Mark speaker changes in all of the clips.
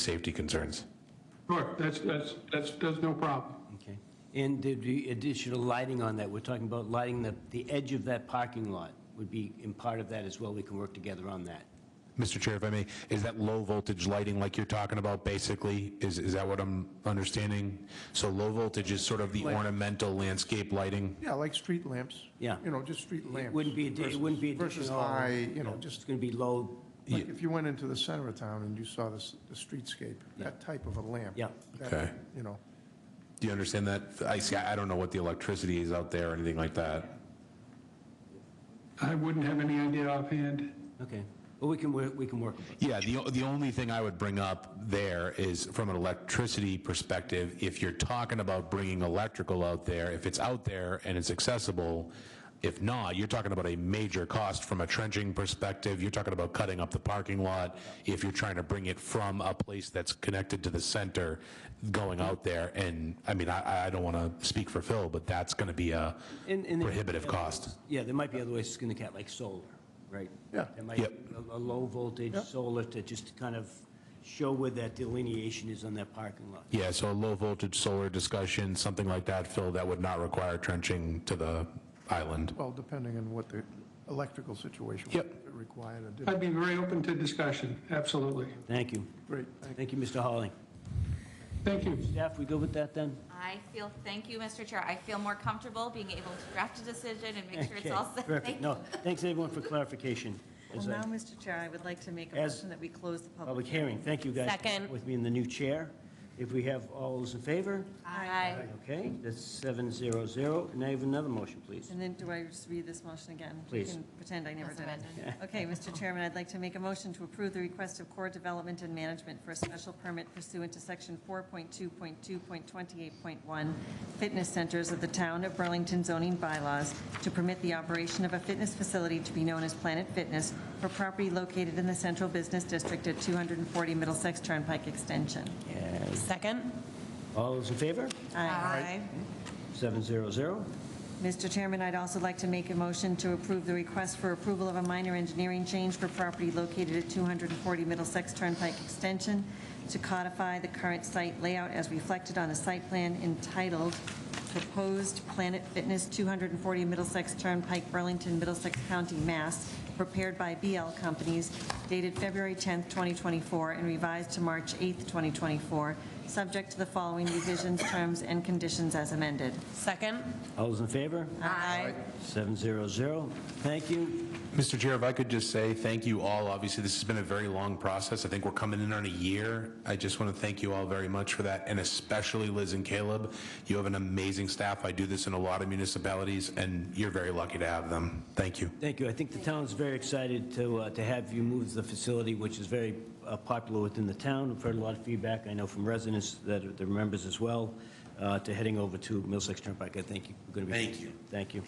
Speaker 1: safety concerns.
Speaker 2: Sure, that's, that's, that's, that's no problem.
Speaker 3: Okay. And there'd be additional lighting on that. We're talking about lighting the, the edge of that parking lot would be in part of that as well. We can work together on that.
Speaker 1: Mr. Chair, if I may, is that low-voltage lighting like you're talking about, basically? Is, is that what I'm understanding? So low-voltage is sort of the ornamental landscape lighting?
Speaker 4: Yeah, like street lamps.
Speaker 3: Yeah.
Speaker 4: You know, just street lamps.
Speaker 3: wouldn't be addi- it wouldn't be
Speaker 4: versus- Versus
Speaker 3: additional-
Speaker 4: high, you know,
Speaker 3: It's
Speaker 4: just,
Speaker 3: going to be low,
Speaker 4: like if you went into the center of town and you saw this, the streetscape, that type of a lamp.
Speaker 3: Yeah.
Speaker 4: that,
Speaker 1: Okay.
Speaker 4: You know,
Speaker 1: Do you understand that? I see, I don't know what the electricity is out there or anything like that.
Speaker 2: I wouldn't have any idea offhand.
Speaker 3: okay. Well, we can, work. we can work with it.
Speaker 1: Yeah, the, the only thing I would bring up there is from an electricity perspective, if you're talking about bringing electrical out there, if it's out there and it's accessible, if not, you're talking about a major cost from a trenching perspective. You're talking about cutting up the parking lot if you're trying to bring it from a place that's connected to the center going out there. And I mean, I, I don't want to speak for Phil, but that's going to be a
Speaker 3: And- and there-
Speaker 1: prohibitive cost.
Speaker 3: Yeah, there might be other ways it's going to get, like solar, right?
Speaker 4: Yeah.
Speaker 3: There might
Speaker 1: Yep.
Speaker 3: be a- a low voltage solar to just kind of show where that delineation is on that parking lot.
Speaker 1: Yeah, so a low-voltage solar discussion, something like that, Phil, that would not require trenching to the island.
Speaker 4: well, depending on what the electrical situation.
Speaker 1: Yep.
Speaker 4: would Required or
Speaker 2: I'd
Speaker 4: didn't.
Speaker 2: be very open to discussion, absolutely.
Speaker 3: Thank you.
Speaker 4: Great, thank
Speaker 3: Thank you, Mr. Hawley.
Speaker 2: Thank you.
Speaker 3: Staff, we good with that then?
Speaker 5: I feel, thank you, Mr. Chair, I feel more comfortable being able to draft a decision and make sure it's all
Speaker 3: Okay,
Speaker 5: set.
Speaker 3: Perfect. No, thanks everyone for clarification.
Speaker 6: Well,
Speaker 3: As I-
Speaker 6: now, Mr. Chair, I would like to make a
Speaker 3: As-
Speaker 6: motion that we close the public.
Speaker 3: Public hearing, thank you guys.
Speaker 5: Second.
Speaker 3: With me in the new chair. If we have all those in favor?
Speaker 5: Aye.
Speaker 3: Okay, that's seven zero zero. And I have another motion, please.
Speaker 6: And then do I just read this motion again?
Speaker 3: Please.
Speaker 6: You can pretend I never
Speaker 5: As
Speaker 6: did it. Okay, Mr. Chairman, I'd like to make a motion to approve the request of Core Development and Management for a special permit pursuant to Section 4.2.2.28.1 Fitness Centers of the Town of Burlington zoning bylaws to permit the operation of a fitness facility to be known as Planet Fitness for property located in the Central Business District at 240 Middlesex Turnpike Extension.
Speaker 7: Second?
Speaker 3: All those in favor?
Speaker 6: Aye.
Speaker 3: Seven zero zero.
Speaker 6: Mr. Chairman, I'd also like to make a motion to approve the request for approval of a minor engineering change for property located at 240 Middlesex Turnpike Extension to codify the current site layout as reflected on a site plan entitled Proposed Planet Fitness 240 Middlesex Turnpike, Burlington, Middlesex County, Mass., prepared by BL Companies, dated February 10th, 2024, and revised to March 8th, 2024, subject to the following revisions, terms, and conditions as amended.
Speaker 7: Second?
Speaker 3: All those in favor?
Speaker 7: Aye.
Speaker 3: Seven zero zero. Thank you.
Speaker 1: Mr. Chair, if I could just say thank you all. Obviously, this has been a very long process. I think we're coming in on a year. I just want to thank you all very much for that, and especially Liz and Caleb. You have an amazing staff. I do this in a lot of municipalities, and you're very lucky to have them. Thank you.
Speaker 3: Thank you. I think the town's very excited to, uh, to have you move the facility, which is very uh, popular within the town. We've heard a lot of feedback, I know from residents that are the members as well, uh, to heading over to Millsex Turnpike. I think you're going to be.
Speaker 1: Thank you.
Speaker 3: Thank you.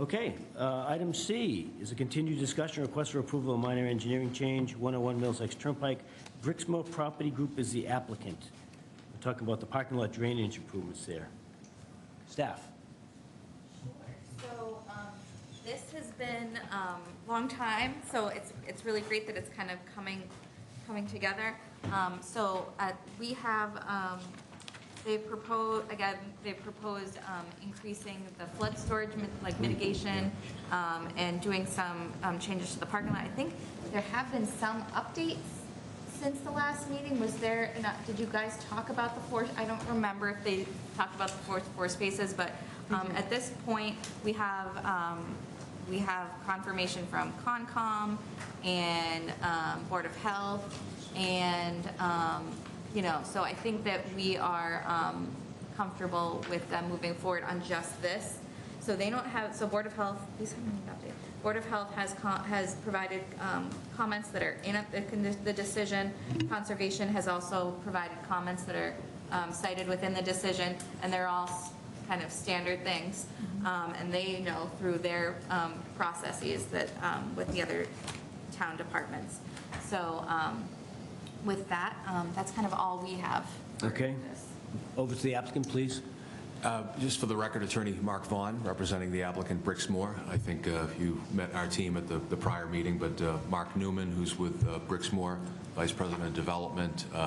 Speaker 3: Okay, uh, item C is a continued discussion, request for approval of minor engineering change, 101 Millsex Turnpike. Brixmore Property Group is the applicant. We're talking about the parking lot drainage improvements there. Staff?
Speaker 5: So, um, this has been, um, long time, so it's, it's really great that it's kind of coming, coming together. Um, so, uh, we have, um, they propose, again, they proposed, um, increasing the flood storage, mit- like mitigation, um, and doing some, um, changes to the parking lot. I think there have been some updates Since the last meeting, was there, and, uh, did you guys talk about the four, I don't remember if they talked about the four, four spaces, but um, at this point, we have, um, we have confirmation from Concom and um, Board of Health, and, um, you know, so I think that we are um, comfortable with them moving forward on just this. So they don't have, so Board of Health, these are not updated. Board of Health has, co- has provided um, comments that are in the con- the decision. Conservation has also provided comments that are um, cited within the decision, and they're all s- kind of standard things. Um, And they know through their um, processes that, um, with the other town departments. So um, with that, um, that's kind of all we have. for
Speaker 3: Okay.
Speaker 5: this.
Speaker 3: Over to the applicant, please.
Speaker 8: Uh, Just for the record, Attorney Mark Vaughn, representing the applicant Brixmore. I think uh, you met our team at the the prior meeting, but uh, Mark Newman, who's with uh, Brixmore, Vice President of Development, uh,